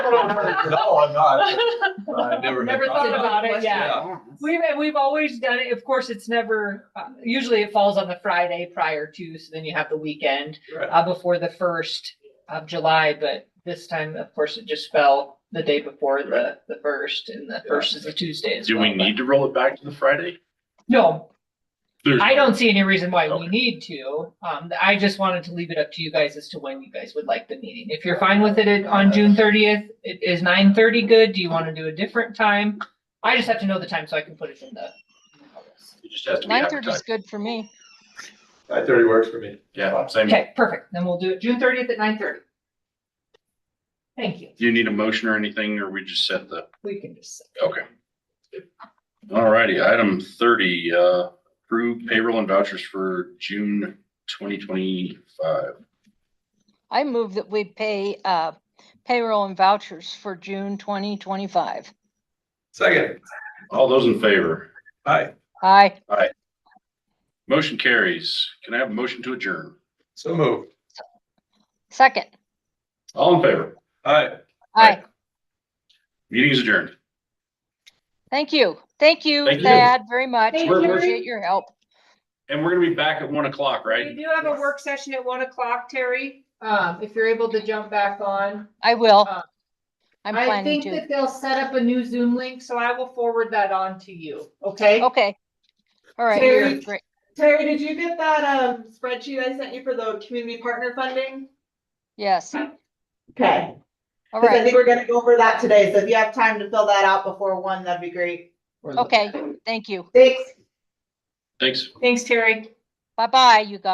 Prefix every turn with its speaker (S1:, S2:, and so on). S1: No, I'm not. I never. had
S2: Never
S1: thought
S2: thought about it, yeah. We've, and we've always done it. Of course, it's never, uh, usually it falls on the Friday prior to, so then you have the weekend
S1: Right.
S2: uh, before the first of July, but this time, of course, it just fell the day before the, the first and the first is a Tuesday as
S3: Do
S2: well.
S3: we
S2: but-
S3: need to roll it back to the Friday?
S2: No,
S3: There's-
S2: I don't see any reason why we
S3: Okay.
S2: need to. Um, I just wanted to leave it up to you guys as to when you guys would like the meeting. If you're fine with it at- on June thirtieth, is nine thirty good? Do you want to do a different time? I just have to know the time so I can put it in the.
S3: It just has to be
S4: Nine thirty is
S3: advertised.
S4: good for me.
S1: Nine thirty works for me.
S3: Yeah, same. Do
S2: Okay, perfect. Then we'll do it June thirtieth at nine thirty. Thank you.
S3: you need a motion or anything, or we just set the,
S2: We can just.
S3: okay. Alrighty, item thirty, uh, approve payroll and vouchers for June twenty twenty-five.
S4: I move that we pay uh, payroll and vouchers for June 2025.
S1: Second,
S3: All those in favor?
S1: hi,
S4: Aye,
S3: Motion carries. Can I have a motion to adjourn?
S1: so moved.
S4: second.
S3: All in favor?
S1: Hi.
S3: Aye.
S4: Aye.
S3: Meeting is adjourned.
S4: Thank you. Thank you,
S3: Thank you.
S4: Thad, very much.
S2: Thank
S3: you.
S4: Appreciate your help.
S3: And we're gonna be back at one o'clock,
S2: We
S3: right?
S2: do have a work session at one o'clock, Terry. Um, if you're able to jump back on.
S4: I will.
S2: Uh,
S4: I'm
S2: I
S4: planning
S2: think
S4: to.
S2: that they'll set up a new Zoom link, so I will forward that on to you, okay?
S4: Okay. All right,
S5: Terry?
S4: great.
S5: Terry, did you get that um spreadsheet I sent you for the community partner funding?
S4: Yes,
S5: Okay.
S4: all
S5: 'Cause I
S4: right.
S5: think we're gonna go over that today, so if you have time to fill that out before one, that'd be great.
S4: Okay, thank you.
S5: Thanks.
S3: Thanks.
S2: Thanks, Terry.
S4: Bye-bye, you guys.